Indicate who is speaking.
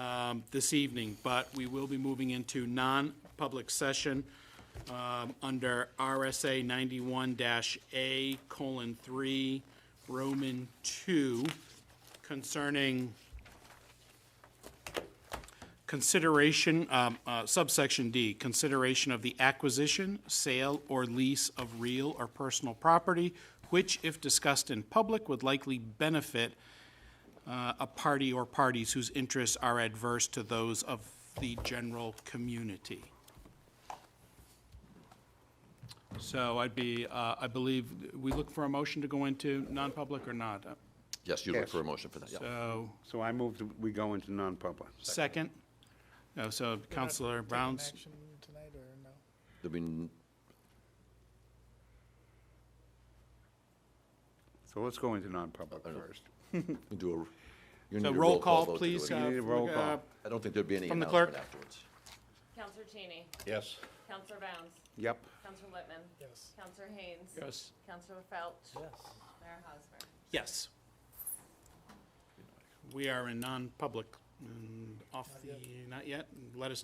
Speaker 1: um, this evening, but we will be moving into non-public session um, under RSA 91-A colon 3, Roman 2, concerning consideration, um, uh, subsection D, consideration of the acquisition, sale, or lease of real or personal property, which, if discussed in public, would likely benefit uh, a party or parties whose interests are adverse to those of the general community. So I'd be, uh, I believe, we look for a motion to go into non-public or not?
Speaker 2: Yes, you look
Speaker 3: Yes.
Speaker 2: for a motion for that, yeah.
Speaker 1: So,
Speaker 3: So I move, that we go into non-public.
Speaker 1: second? No, so Counselor Brown's,
Speaker 4: Action tonight or no?
Speaker 2: There'll be n-
Speaker 3: So let's go into non-public first.
Speaker 2: we do a, you need
Speaker 1: so
Speaker 2: a
Speaker 1: roll call,
Speaker 2: vote to do
Speaker 1: please.
Speaker 2: it.
Speaker 1: uh,
Speaker 3: You need a roll
Speaker 1: uh,
Speaker 3: call.
Speaker 2: I don't think there'd be any
Speaker 1: from the
Speaker 2: announcement
Speaker 1: clerk.
Speaker 2: afterwards.
Speaker 5: Counselor Cheney.
Speaker 3: Yes.
Speaker 5: Counselor Bounce.
Speaker 3: Yep.
Speaker 5: Counselor Littman.
Speaker 4: Yes.
Speaker 5: Counselor Haynes.
Speaker 1: Yes.
Speaker 5: Counselor Felch. Mayor Hosmer.
Speaker 1: Yes. We are in non-public, mm, off the, not yet, let us